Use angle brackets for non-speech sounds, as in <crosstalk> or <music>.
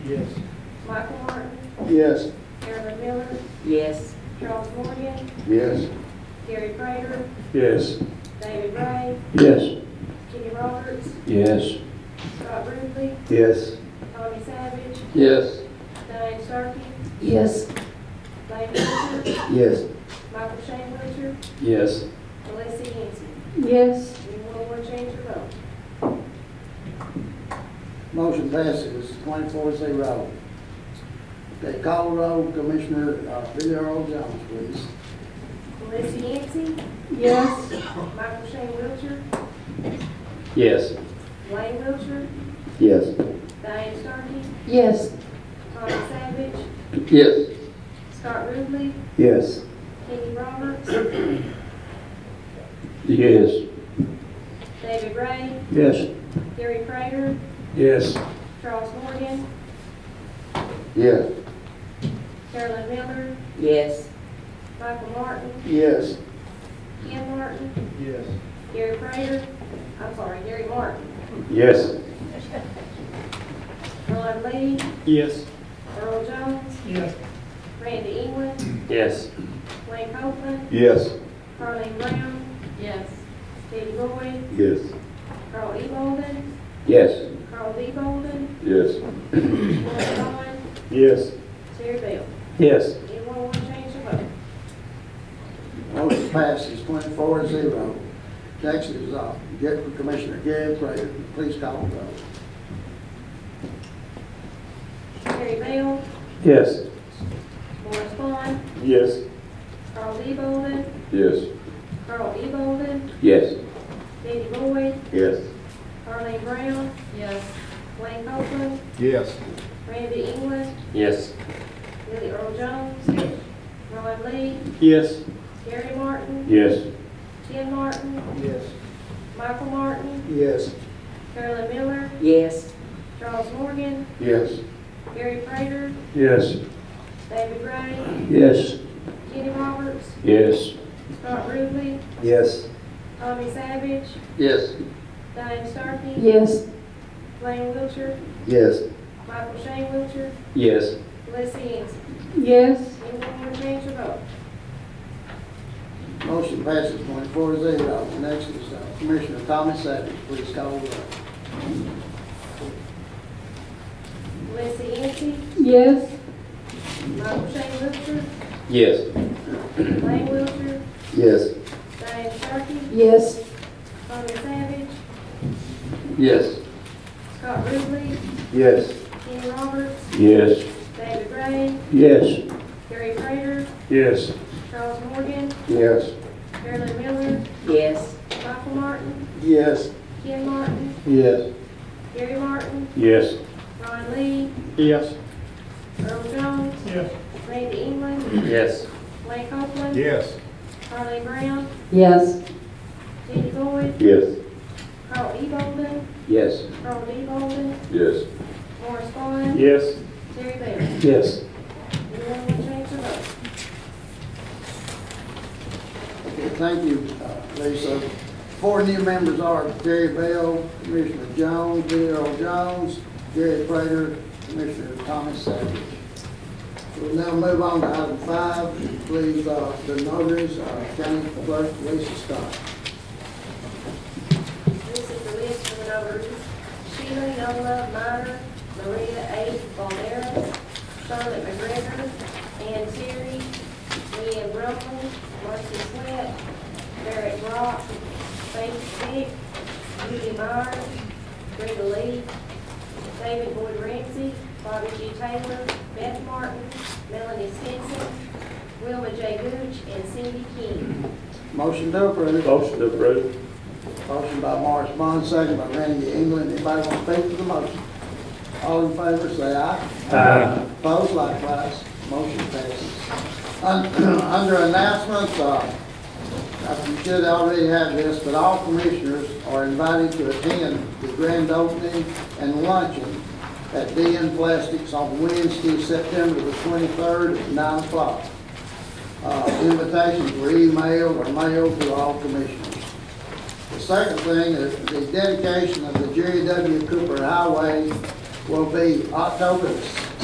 Yes. Michael Martin, Yes. Marilyn Miller, yes, Charles Morgan, Yes. Gary Prater, Yes. David Ray, Yes. Kenny Roberts, Yes. Scott Ruble, Yes. Tommy Savage, Yes. Diane Starkey, yes, Lane Wilcher, Yes. Michael Shane Wilcher, Yes. Melissa Yancy. yes, Anyone want to change your vote? Motion passes twenty-four zero. Okay, call roll, Commissioner uh, Billy Earl Jones, please. Melissa Yancy, yes, Michael Shane Wilcher, Yes. Lane Wilcher, Yes. Diane Starkey, yes, Tommy Savage, Yes. Scott Ruble, Yes. Kenny Roberts, Yes. David Ray, Yes. Gary Prater, Yes. Charles Morgan, Yes. Carolyn Miller, yes, Michael Martin, Yes. Ken Martin, Yes. Gary Prater, I'm sorry, Gary Martin, Yes. Ron Lee, Yes. Earl Jones, Yes. Randy England, Yes. Wayne Copeland, Yes. Carleen Brown, yes, Steve Roy, Yes. Carl E. Bolden, Yes. Carl D. Bolden, Yes. Roy Vaughn, Yes. Terry Bell. Yes. Anyone want to change their vote? Motion passes twenty-four zero. Next is uh, Get- Commissioner Gary Prater, please call roll. Terry Bell, Yes. Morris Vaughn, Yes. Carl D. Bolden, Yes. Carl E. Bolden, Yes. Danny Boyd, Yes. Carleen Brown, yes, Wayne Copeland, Yes. Randy England, Yes. Billy Earl Jones, Ron Lee, Yes. Gary Martin, Yes. Ken Martin, Yes. Michael Martin, Yes. Carolyn Miller, yes, Charles Morgan, Yes. Gary Prater, Yes. David Ray, Yes. Kenny Roberts, Yes. Scott Ruble, Yes. Tommy Savage, Yes. Diane Starkey, yes, Lane Wilcher, Yes. Michael Shane Wilcher, Yes. Les Ennis. yes, Anyone want to change your vote? Motion passes twenty-four zero. Next is uh, Commissioner Tommy Savage, please call roll. Les Ennis, yes, Michael Shane Wilcher, Yes. Lane Wilcher, Yes. Diane Starkey, yes, Tommy Savage, Yes. Scott Ruble, Yes. Kenny Roberts, Yes. David Ray, Yes. Gary Prater, Yes. Charles Morgan, Yes. Marilyn Miller, yes, Michael Martin, Yes. Ken Martin, Yes. Gary Martin, Yes. Ron Lee, Yes. Earl Jones, Yes. Randy England, Yes. Lane Copeland, Yes. Carly Brown, yes, Danny Boyd, Yes. Carl E. Bolden, Yes. Carl D. Bolden, Yes. Morris Vaughn, Yes. Terry Bell. Yes. Anyone want to change their vote? Okay, thank you, uh, Lisa. Four new members are Terry Bell, Commissioner Jones, Billy Earl Jones, Gary Prater, Commissioner Thomas Savage. We'll now move on to item five, please, uh, the notaries, uh, County Clerk Lisa Scott. This is the list for the nominees. Sheila Yola Minor, Maria A. Valera, Charlotte McGregor, Ann Terry, Leanne Rumpel, Marcy Sweat, Derek Rock, Faith Dick, Judy Myers, Brenda Lee, David Boyd Ramsey, Bobby G. Taylor, Beth Martin, Melanie Stinson, Wilma J. Gooch, and Cindy King. Motion to approve. Motion to approve. Motion by Morris Bond, second by Randy England. Anybody want to speak to the motion? All in favor, say aye. Aye. Opposed, likewise. Motion passes. Un- <clears throat> Under announcements, uh, uh, you should already have this, but all commissioners are invited to attend the grand opening and luncheon at DN Plastics on Wednesday, September the 23rd at 9 o'clock. Uh, Invitations were emailed or mailed to all commissioners. The second thing is the dedication of the Jerry W. Cooper Highway will be October